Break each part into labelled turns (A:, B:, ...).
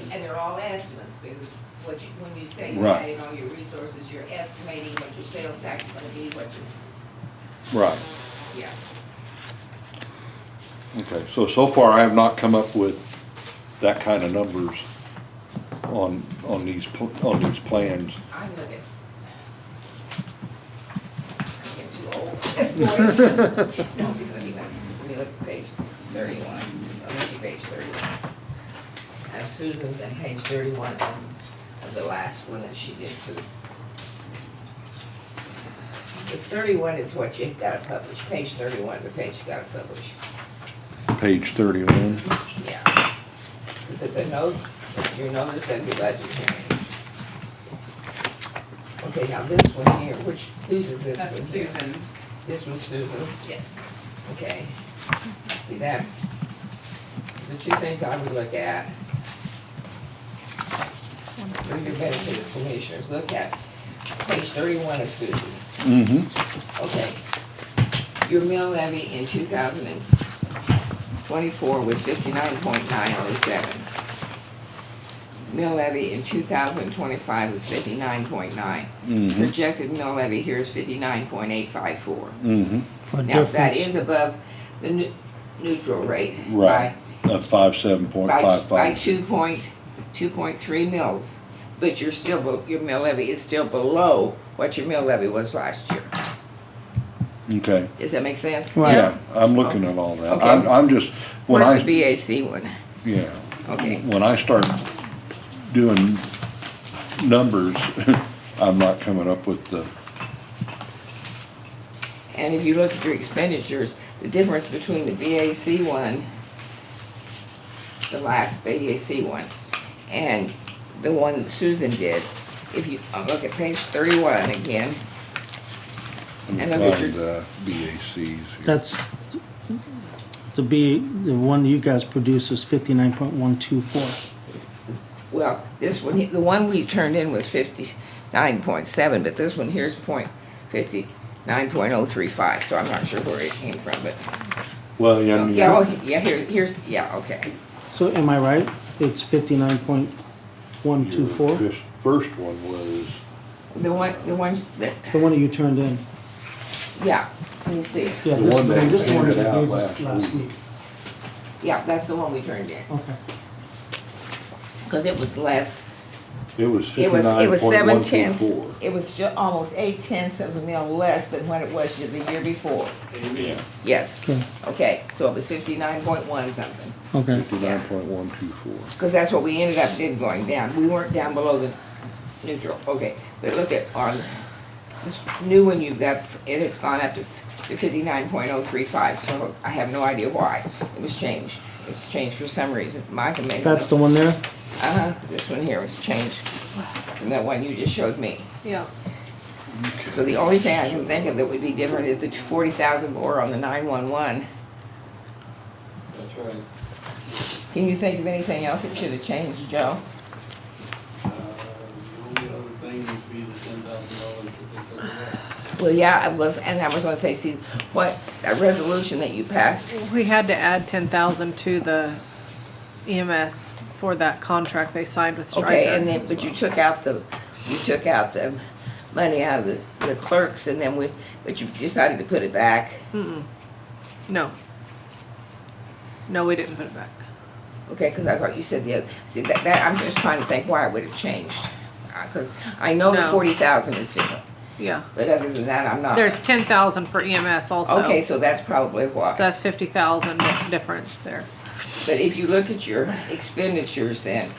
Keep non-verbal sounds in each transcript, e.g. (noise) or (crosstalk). A: they're all estimates, because what you, when you say you're
B: Right.
A: adding all your resources, you're estimating what your sales tax is gonna be, what your,
B: Right,
A: yeah.
B: okay, so, so far I have not come up with that kind of numbers on, on these, pl- on these plans.
A: I'm looking. I'm getting too old for this voice. No, because let me, look- let me look at page thirty-one, let me see page thirty-one. Uh, Susan's on page thirty-one of, of the last one that she did too. Because thirty-one is what you gotta publish, page thirty-one is the page you gotta publish,
B: Page thirty-one,
A: yeah. 'Cause it's a note, it's your notice of your budget hearing. Okay, now this one here, which, whose is this one
C: That's
A: here?
C: Susan's,
A: This one's Susan's.
C: yes.
A: Okay, see that, the two things I would look at. For your benefit as commissioners, look at page thirty-one of Susan's,
B: mm-hmm,
A: okay. Your mill levy in two thousand and twenty-four was fifty-nine point nine oh seven. Mill levy in two thousand and twenty-five was fifty-nine point nine.
B: mm-hmm,
A: Projected mill levy here is fifty-nine point eight five four.
B: mm-hmm,
D: For
A: Now, that
D: difference,
A: is above the nu- neutral rate.
B: right, of five, seven
A: By,
B: point
A: by,
B: five
A: by
B: five.
A: two point, two point three mils. But you're still, be- your mill levy is still below what your mill levy was last year.
B: Okay,
A: Does that make sense?
D: Right.
B: yeah, I'm looking at all that,
A: Okay.
B: I'm, I'm just, when
A: Where's
B: I.
A: the BAC one?
B: Yeah.
A: Okay.
B: When I start doing numbers, (laughs) I'm not coming up with the,
A: And if you look at your expenditures, the difference between the BAC one, the last BAC one, and the one Susan did, if you uh, look at page thirty-one again,
B: I'm
A: And look at
B: applying
A: your-
B: the BACs here.
D: that's, the B, the one you guys produced was fifty-nine point one two four.
A: Well, this one, he- the one we turned in was fifty-nine point seven, but this one here's point fifty-nine point oh three five, so I'm not sure where it came from, but.
B: Well, yeah, I
A: Oh,
B: mean,
A: Yeah, oh, yeah, here, here's, yeah, okay,
D: So am I right? It's fifty-nine point one two
B: your
D: four?
B: fis- First one was,
A: the one, the one that,
D: The one that you turned in?
A: yeah, let me see,
D: Yeah,
B: The
D: this
B: one that
D: this one
B: handed
D: that
B: out
D: gave
B: last
D: us last
B: week.
D: week.
A: yeah, that's the one we turned in,
D: Okay.
A: cause it was less,
B: it was
A: it was, it was seven
B: fifty-nine point one two
A: tenths.
B: four.
A: It was ju- almost eight tenths of a mil less than what it was the year before,
B: Yeah,
A: yes,
D: Okay,
A: okay, so it was fifty-nine point one something.
D: okay.
B: fifty-nine point one two four.
A: Because that's what we ended up did going down. We weren't down below the neutral, okay. But look at on this new one you've got, and it's gone up to to fifty-nine point oh three five, so I have no idea why. It was changed. It was changed for some reason. Michael may.
D: That's the one there?
A: Uh-huh, this one here was changed from that one you just showed me.
C: Yeah.
A: So the only thing I can think of that would be different is the forty thousand more on the nine-one-one.
E: That's right.
A: Can you think of anything else that should have changed, Joe?
E: Uh, The only other thing would be the ten thousand dollars that they took away.
A: Well, yeah, I was, and I was gonna say, see, what, that resolution that you passed,
C: We had to add ten thousand to the EMS for that contract they signed with Stryker.
A: okay, and then, but you took out the, you took out the money out of the, the clerks, and then we, but you decided to put it back.
C: No. No, we didn't put it back.
A: Okay, because I thought you said the other, see, that, that, I'm just trying to think why it would have changed. Because I know the
C: No.
A: forty thousand is different,
C: Yeah.
A: but other than that, I'm not.
C: There's ten thousand for EMS also.
A: Okay, so that's probably
C: So
A: why.
C: that's fifty thousand difference there.
A: But if you look at your expenditures then,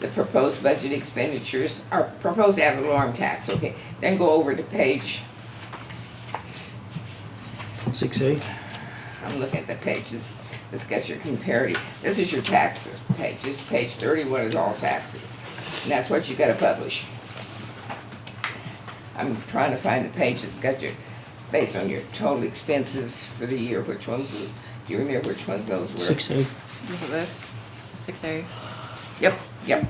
A: the proposed budget expenditures are proposed ad valorem tax, okay? Then go over to page
D: Six A?
A: I'm looking at the pages, that's got your comparative, this is your taxes page, this page thirty-one is all taxes, and that's what you gotta publish. I'm trying to find the page that's got your, based on your total expenses for the year, which ones, do you remember which ones those were?
D: Six A.
C: Is it this? Six A.
A: Yep, yep.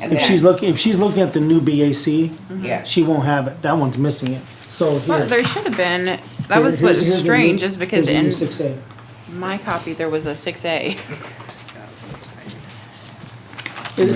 A: And
D: If she's
A: that,
D: looking, if she's looking at the new BAC,
A: yeah,
D: she won't have it. That one's missing it. So
F: Well, there
D: here.
F: should have been, that was
D: Here- here's- here's
F: what's
D: the new-
F: strange is because
D: here's the new
F: in
D: Six A.
F: my copy, there was a six A.